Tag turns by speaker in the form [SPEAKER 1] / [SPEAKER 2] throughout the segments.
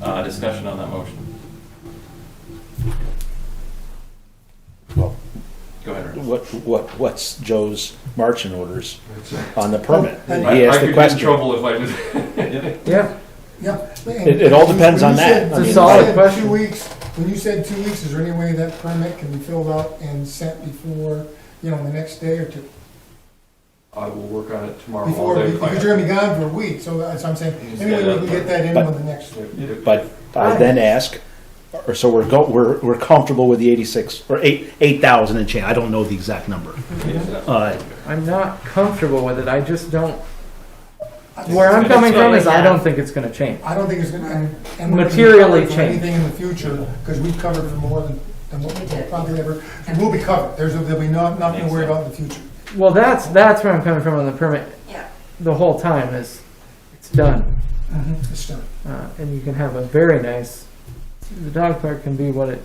[SPEAKER 1] Uh, Discussion on that motion.
[SPEAKER 2] Well,
[SPEAKER 1] Go ahead, Ernest.
[SPEAKER 2] what, what, what's Joe's marching orders
[SPEAKER 3] That's it.
[SPEAKER 2] on the permit?
[SPEAKER 1] I-
[SPEAKER 2] He
[SPEAKER 1] I
[SPEAKER 2] asked
[SPEAKER 1] could get
[SPEAKER 2] the
[SPEAKER 1] in
[SPEAKER 2] question.
[SPEAKER 1] trouble if I just,
[SPEAKER 3] Yeah,
[SPEAKER 4] Yeah.
[SPEAKER 2] It- it all depends
[SPEAKER 4] When
[SPEAKER 2] on
[SPEAKER 4] you
[SPEAKER 2] that.
[SPEAKER 4] said-
[SPEAKER 2] I
[SPEAKER 4] when
[SPEAKER 2] mean,
[SPEAKER 4] you
[SPEAKER 3] solid
[SPEAKER 4] said
[SPEAKER 3] question.
[SPEAKER 4] Two weeks, when you said two weeks, is there any way that permit can be filled out and sent before, you know, the next day or two?
[SPEAKER 1] I will work on it tomorrow.
[SPEAKER 4] Before,
[SPEAKER 1] while they plan.
[SPEAKER 4] because you're gonna be gone for a week, so that's what I'm saying,
[SPEAKER 1] You just
[SPEAKER 4] anyway,
[SPEAKER 1] get
[SPEAKER 4] we
[SPEAKER 1] it
[SPEAKER 4] can
[SPEAKER 1] out
[SPEAKER 4] get that in
[SPEAKER 2] But-
[SPEAKER 4] on the next.
[SPEAKER 2] But I then ask, or so we're go, we're, we're comfortable with the eighty-six, or eight, eight thousand and change, I don't know the exact number.
[SPEAKER 1] Yeah.
[SPEAKER 2] Uh,
[SPEAKER 3] I'm not comfortable with it, I just don't,
[SPEAKER 4] I think
[SPEAKER 3] where I'm
[SPEAKER 4] it's-
[SPEAKER 3] coming from is I don't think it's gonna change.
[SPEAKER 4] I don't think it's gonna, and- and. we're gonna be
[SPEAKER 3] Materially
[SPEAKER 4] covered for
[SPEAKER 3] changed.
[SPEAKER 4] Anything in the future, because we've covered for more than, than what we
[SPEAKER 5] We did.
[SPEAKER 4] probably ever, and we'll be covered, there's, there'll be no- nothing to worry about in the future.
[SPEAKER 3] Well, that's, that's where I'm coming from on the permit
[SPEAKER 5] Yeah,
[SPEAKER 3] the whole time is, it's done.
[SPEAKER 4] It's done.
[SPEAKER 3] Uh, and you can have a very nice, the dog park can be what it,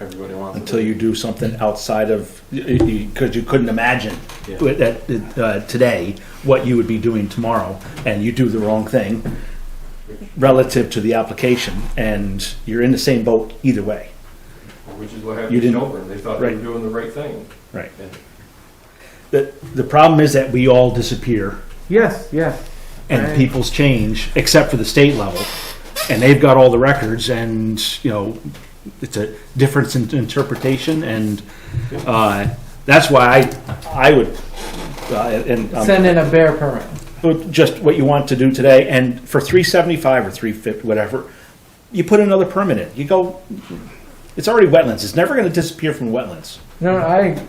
[SPEAKER 1] Everybody wants.
[SPEAKER 2] Until you do something outside of, because you couldn't imagine
[SPEAKER 1] Yeah.
[SPEAKER 2] with that, uh, today, what you would be doing tomorrow, and you do the wrong thing relative to the application, and you're in the same boat either way.
[SPEAKER 1] Which is what happened
[SPEAKER 2] You
[SPEAKER 1] to
[SPEAKER 2] didn't-
[SPEAKER 1] Shelburne. They thought they were
[SPEAKER 2] Right.
[SPEAKER 1] doing the right thing.
[SPEAKER 2] Right.
[SPEAKER 1] And
[SPEAKER 2] The, the problem is that we all disappear
[SPEAKER 3] yes, yes.
[SPEAKER 2] and
[SPEAKER 3] Right.
[SPEAKER 2] people's change, except for the state level, and they've got all the records, and you know, it's a difference in interpretation, and uh, that's why I I would uh, and um,
[SPEAKER 3] Send in a bear permit.
[SPEAKER 2] but just what you want to do today, and for three seventy five or three fifty, whatever, you put another permit in. You go, it's already wetlands. It's never going to disappear from wetlands.
[SPEAKER 3] No, I,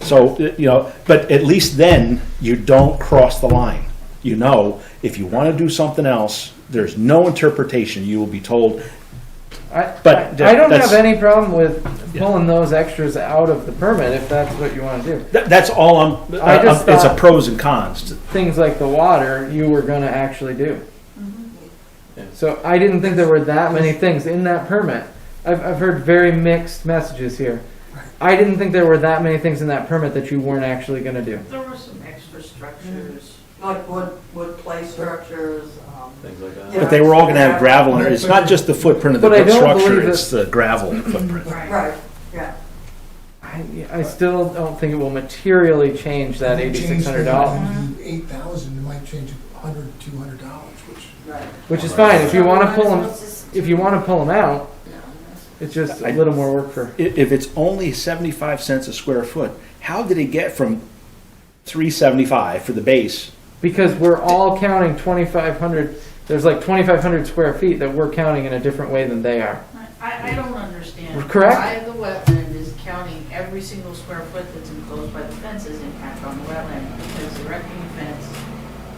[SPEAKER 2] So, you know, but at least then you don't cross the line. You know, if you want to do something else, there's no interpretation. You will be told,
[SPEAKER 3] I,
[SPEAKER 2] But
[SPEAKER 3] I I don't
[SPEAKER 2] that's-
[SPEAKER 3] have any problem with
[SPEAKER 2] Yeah.
[SPEAKER 3] pulling those extras out of the permit if that's what you wanna do.
[SPEAKER 2] that, that's all I'm,
[SPEAKER 3] I just
[SPEAKER 2] it's a
[SPEAKER 3] thought-
[SPEAKER 2] pros and cons.
[SPEAKER 3] Things like the water, you were gonna actually do.
[SPEAKER 1] Yeah.
[SPEAKER 3] So I didn't think there were that many things in that permit. I've, I've heard very mixed messages here. I didn't think there were that many things in that permit that you weren't actually gonna do.
[SPEAKER 5] there were some extra structures, Mm-hmm. like wood, wood play structures, um,
[SPEAKER 1] Things like that.
[SPEAKER 5] Yeah.
[SPEAKER 2] But they were all going to have gravel in it. It's not just the footprint of the
[SPEAKER 3] But I
[SPEAKER 2] brick
[SPEAKER 3] don't
[SPEAKER 2] structure,
[SPEAKER 3] believe
[SPEAKER 2] it's the gravel footprint.
[SPEAKER 5] right, yeah.
[SPEAKER 3] I, I still don't think it will materially change that eighty-six hundred dollars,
[SPEAKER 4] Eight thousand, it might change a hundred, two hundred dollars, which.
[SPEAKER 5] Right.
[SPEAKER 3] which is fine. If you want to pull them,
[SPEAKER 5] them,
[SPEAKER 3] if you want to pull them out, it's just a little more work for.
[SPEAKER 2] I- If it's only 75 cents a square foot, how did it get from 375 for the base?
[SPEAKER 3] Because we're all counting twenty-five hundred. There's like twenty-five hundred square feet that we're counting in a different way than they are.
[SPEAKER 5] I, I don't understand.
[SPEAKER 3] Correct.
[SPEAKER 5] Why the wetland is counting every single square foot that's enclosed by the fences impact on the wetland, because erecting a fence,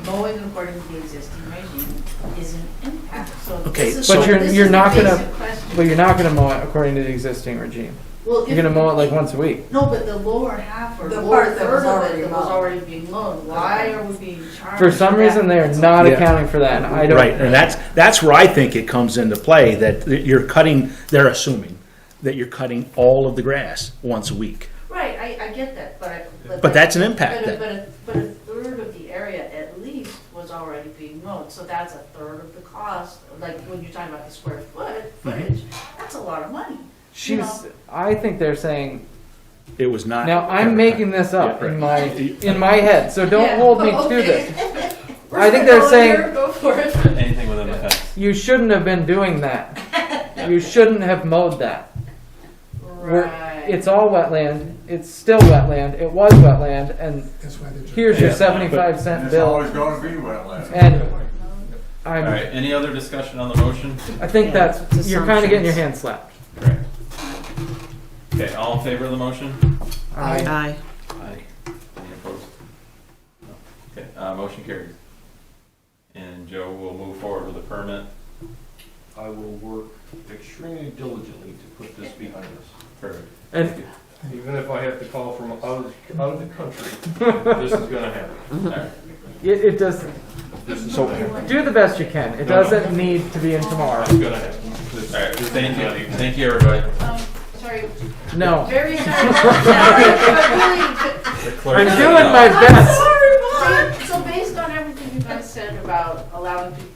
[SPEAKER 5] mowing according to the existing regime is an impact, so.
[SPEAKER 2] Okay,
[SPEAKER 5] this is-
[SPEAKER 2] But
[SPEAKER 3] you're-
[SPEAKER 5] this
[SPEAKER 3] you're
[SPEAKER 5] is
[SPEAKER 3] not
[SPEAKER 5] the
[SPEAKER 3] gonna-
[SPEAKER 5] basic question.
[SPEAKER 3] But you're not going to mow it according to the existing regime.
[SPEAKER 5] Well,
[SPEAKER 3] You're
[SPEAKER 5] if-
[SPEAKER 3] going to mow it like once a week.
[SPEAKER 5] No, but the lower half or
[SPEAKER 6] The
[SPEAKER 5] lower
[SPEAKER 6] part that
[SPEAKER 5] third
[SPEAKER 6] was
[SPEAKER 5] of
[SPEAKER 6] already
[SPEAKER 5] it that was
[SPEAKER 6] mowed.
[SPEAKER 5] already being mowed, why are we being charged?
[SPEAKER 3] For some
[SPEAKER 5] that?
[SPEAKER 3] reason, they are not
[SPEAKER 2] Yeah.
[SPEAKER 3] accounting for that, and I don't.
[SPEAKER 2] Right, and that's, that's where I think it comes into play, that you're cutting, they're assuming that you're cutting all of the grass once a week.
[SPEAKER 5] Right, I, I get that, but I.
[SPEAKER 2] But that's an
[SPEAKER 5] But
[SPEAKER 2] impact
[SPEAKER 5] a, but
[SPEAKER 2] then.
[SPEAKER 5] a, but a third of the area at least was already being mowed, so that's a third of the cost, like when you're talking about the square foot,
[SPEAKER 2] Mm-hmm.
[SPEAKER 5] footage, that's a lot of money.
[SPEAKER 3] She's. I think they're saying
[SPEAKER 2] It was not.
[SPEAKER 3] now. I'm making this up
[SPEAKER 2] Yeah, right.
[SPEAKER 3] in my in my head, so don't
[SPEAKER 5] Yeah,
[SPEAKER 3] hold me to
[SPEAKER 5] okay.
[SPEAKER 3] this.
[SPEAKER 5] We're
[SPEAKER 3] I think they're
[SPEAKER 5] going
[SPEAKER 3] saying-
[SPEAKER 5] here, Go for it.
[SPEAKER 1] Anything within the fence.
[SPEAKER 3] You shouldn't have been doing that. You shouldn't have mowed that. We're-
[SPEAKER 5] Right.
[SPEAKER 3] It's all wetland. It's still wetland. It was wetland, and
[SPEAKER 4] That's why they're.
[SPEAKER 3] here's your
[SPEAKER 1] Yeah,
[SPEAKER 3] seventy-five cent
[SPEAKER 6] It's
[SPEAKER 3] bill.
[SPEAKER 6] always gonna be wetland.
[SPEAKER 3] And
[SPEAKER 5] Um,
[SPEAKER 1] All right,
[SPEAKER 3] I'm,
[SPEAKER 1] any other discussion on the motion?
[SPEAKER 3] I think
[SPEAKER 5] Yeah,
[SPEAKER 3] that's,
[SPEAKER 5] it's
[SPEAKER 3] you're kinda getting your
[SPEAKER 5] assumptions.
[SPEAKER 3] hand slapped.
[SPEAKER 1] Okay, all in favor of the motion?
[SPEAKER 3] I-
[SPEAKER 4] Aye.
[SPEAKER 1] Aye. Any opposed? No. Okay, uh, motion carries. And Joe will move forward with the permit.
[SPEAKER 7] I will work extremely diligently to put this behind us.
[SPEAKER 1] Perfect.
[SPEAKER 3] And
[SPEAKER 7] Even if I have to call from out of, out of the country, this is gonna happen.
[SPEAKER 1] All right.
[SPEAKER 3] it, it does,
[SPEAKER 7] This is gonna happen.
[SPEAKER 3] do the best you can. It
[SPEAKER 7] No, no.
[SPEAKER 3] doesn't need to be in tomorrow.
[SPEAKER 7] It's gonna happen. This-
[SPEAKER 1] All right, thank you, thank you, everybody.
[SPEAKER 5] Um, sorry,
[SPEAKER 3] No.
[SPEAKER 5] very sorry, sorry, but really,
[SPEAKER 3] I'm doing my best.
[SPEAKER 5] So based on everything you guys said about allowing people